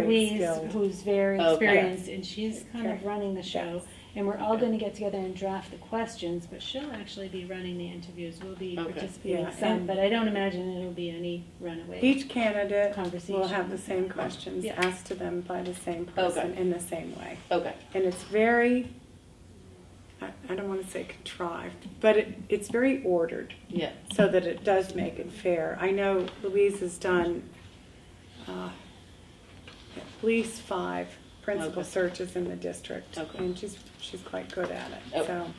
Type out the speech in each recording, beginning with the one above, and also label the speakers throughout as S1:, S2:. S1: Louise,
S2: skilled.
S1: who's very
S3: Okay.
S1: experienced, and she's kind of
S2: Okay.
S1: running the show. And we're all gonna get together and draft the questions, but she'll actually be running the interviews. We'll be
S3: Okay.
S1: participating
S2: Yeah,
S1: some,
S2: and-
S1: but I don't imagine it'll be any runaway
S2: Each candidate will have
S1: conversation.
S2: the same questions
S1: Yeah.
S2: asked to them by the same person in the same way.
S3: Okay.
S2: And it's very, I, I don't want to say contrived, but it, it's very ordered
S3: Yeah.
S2: so that it does make it fair. I know Louise has done uh, at least five principal
S3: Okay.
S2: searches in the district.
S3: Okay.
S2: And she's, she's quite good at it,
S3: Okay.
S2: so.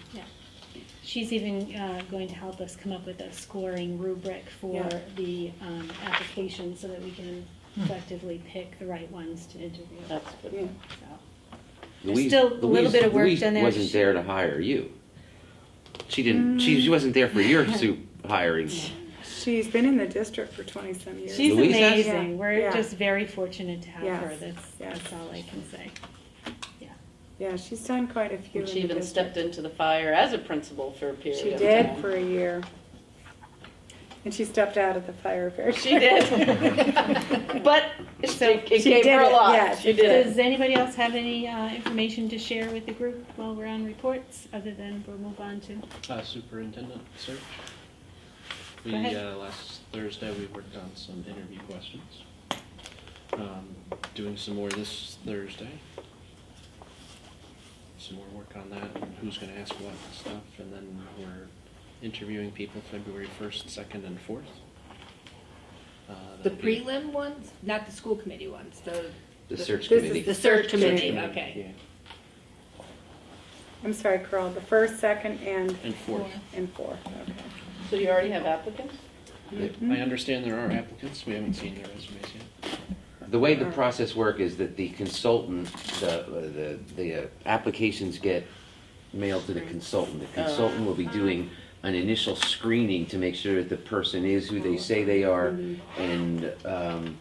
S1: She's even uh, going to help us come up with a scoring rubric for
S2: Yeah. Hmm.
S1: the um, application so that we can effectively pick the right ones to interview.
S3: That's good.
S2: yeah.
S1: So, There's
S4: Louise,
S1: still a little
S4: Louise-
S1: bit of work
S4: Louise
S1: done there.
S4: Wasn't
S1: She-
S4: there to hire you. She didn't. She, she wasn't there for your
S1: Mm.
S4: soup hiring.
S2: She's been in the district for 20-some years.
S1: She's
S4: Louise has-
S1: amazing.
S2: Yeah.
S1: We're
S2: Yeah.
S1: just very fortunate to have
S2: Yes.
S1: her. That's,
S2: Yes.
S1: that's all I can say.
S2: Yeah, she's done quite a few.
S3: And she
S2: in the
S3: even stepped
S2: district.
S3: into the fire as a principal for a period
S2: She
S3: of
S2: did
S3: time.
S2: for a year. And she stepped out of the fire very
S3: She did. but it, it
S2: She
S3: gave
S2: did
S3: her a
S2: it,
S3: lot.
S2: yeah,
S3: she
S2: she did.
S3: did.
S1: Does anybody else have any uh, information to share with the group while we're on reports, other than we'll move on to?
S5: Uh, superintendent search. We,
S1: Go ahead.
S5: uh, last Thursday, we worked on some interview questions. Um, doing some more this Thursday. Some more work on that, and who's gonna ask what and stuff, and then we're interviewing people February first, second, and fourth. Uh,
S6: The
S5: that'll be-
S6: prelim ones, not the school committee ones, the,
S4: Um, The search
S2: This is
S4: committee.
S6: the search committee,
S5: Yeah,
S6: okay.
S2: I'm sorry, Carl, the first, second, and,
S5: yeah, And fourth.
S2: and fourth, okay.
S3: So you already have applicants?
S5: I understand there are applicants, we haven't seen their resumes yet.
S4: The way
S1: Uh.
S4: the process work is that the consultant, the, the, the uh, applications get mailed to the consultant.
S1: Oh.
S4: The consultant will be
S1: Uh-huh.
S4: doing an initial screening to make sure that the person is who they say they are
S1: Mm-hmm.
S4: and, um,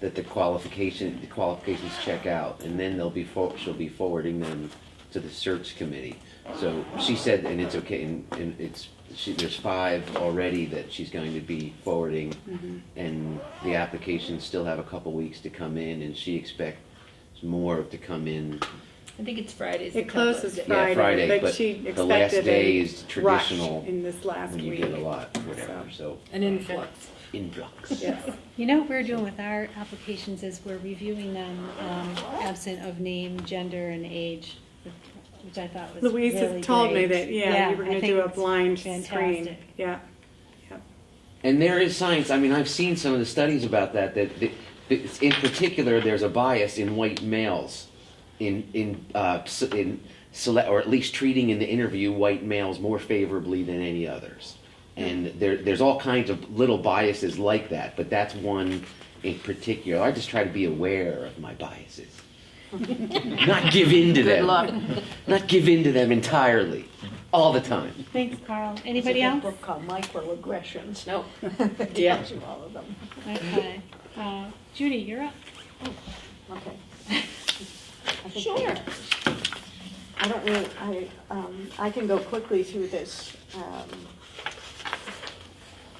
S4: that the qualification, the qualifications check out. And then they'll be, for- she'll be forwarding them to the search committee. So she said, and it's okay, and, and it's, she, there's five already that she's going to be forwarding
S2: Mm-hmm.
S4: and the applications still have a couple weeks to come in, and she expects more to come in.
S6: I think it's Fridays.
S2: It
S6: that come
S2: closes
S6: out.
S4: Yeah, Friday,
S2: Friday, but
S4: but
S2: she
S4: the last
S2: expected
S4: day
S2: a
S4: is
S2: rush
S4: traditional
S2: in this last
S4: When you
S2: week.
S4: get a lot, whatever, so
S6: An influx.
S4: influx.
S2: Yes,
S1: You know what we're doing with our applications is we're reviewing them um, absent of name, gender, and age, which I thought was
S2: Louise
S1: really
S2: has told me
S1: great.
S2: that, yeah, you were
S1: I
S2: gonna
S1: think
S2: do a
S1: it's
S2: blind
S1: fantastic.
S2: screen, yeah.
S4: And there is science, I mean, I've seen some of the studies about that, that, that- that in particular, there's a bias in white males in, in, uh, s- in select, or at least treating in the interview white males more favorably than any others. And there, there's all kinds of little biases like that, but that's one in particular. I just try to be aware of my biases. Not give in to them.
S3: luck.
S4: Not give in to them entirely, all the time.
S1: Thanks, Carl. Anybody else?
S7: book called Microaggressions.
S3: No.
S7: It
S3: Yeah.
S7: tells you all of them.
S1: Okay. Uh, Judy, you're up.
S7: Okay. I think- I don't really, I, um, I can go quickly through this, um,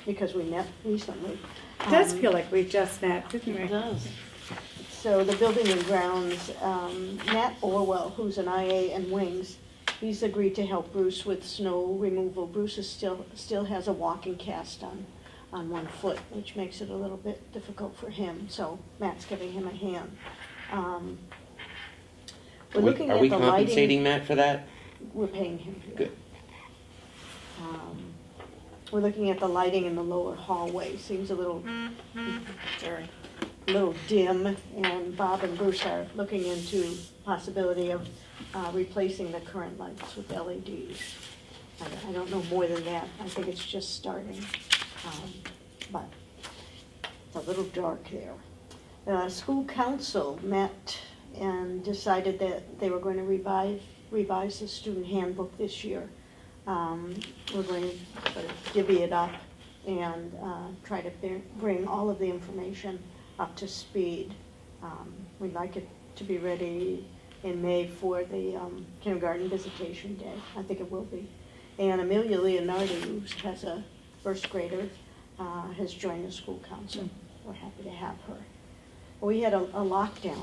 S7: because we met recently.
S2: It does
S7: Um,
S2: feel like we just met, didn't we?
S3: It does.
S7: So the building and grounds, um, Matt Orwell, who's an IA and Wings, he's agreed to help Bruce with snow removal. Bruce is still, still has a walking cast on, on one foot, which makes it a little bit difficult for him, so Matt's giving him a hand. Um, We're
S4: What-
S7: looking
S4: Are
S7: at
S4: we
S7: the
S4: compensating
S7: lighting,
S4: Matt for that?
S7: we're paying him. for that.
S4: Good.
S7: Um, We're looking at the lighting in the lower hallway, seems a little
S3: Sorry.
S7: little dim, and Bob and Bruce are looking into possibility of uh, replacing the current lights with LEDs. I don't- I don't know more than that, I think it's just starting, um, but it's a little dark there. The school council met and decided that they were going to revise, revise the student handbook this year. Um, We're going to sort of divvy it up and uh, try to bring- bring all of the information up to speed. Um, We'd like it to be ready in May for the um, kindergarten visitation day. I think it will be. And Amelia Leonardi, who has a first grader, uh, has joined the school council. We're happy to have her. We had a a lockdown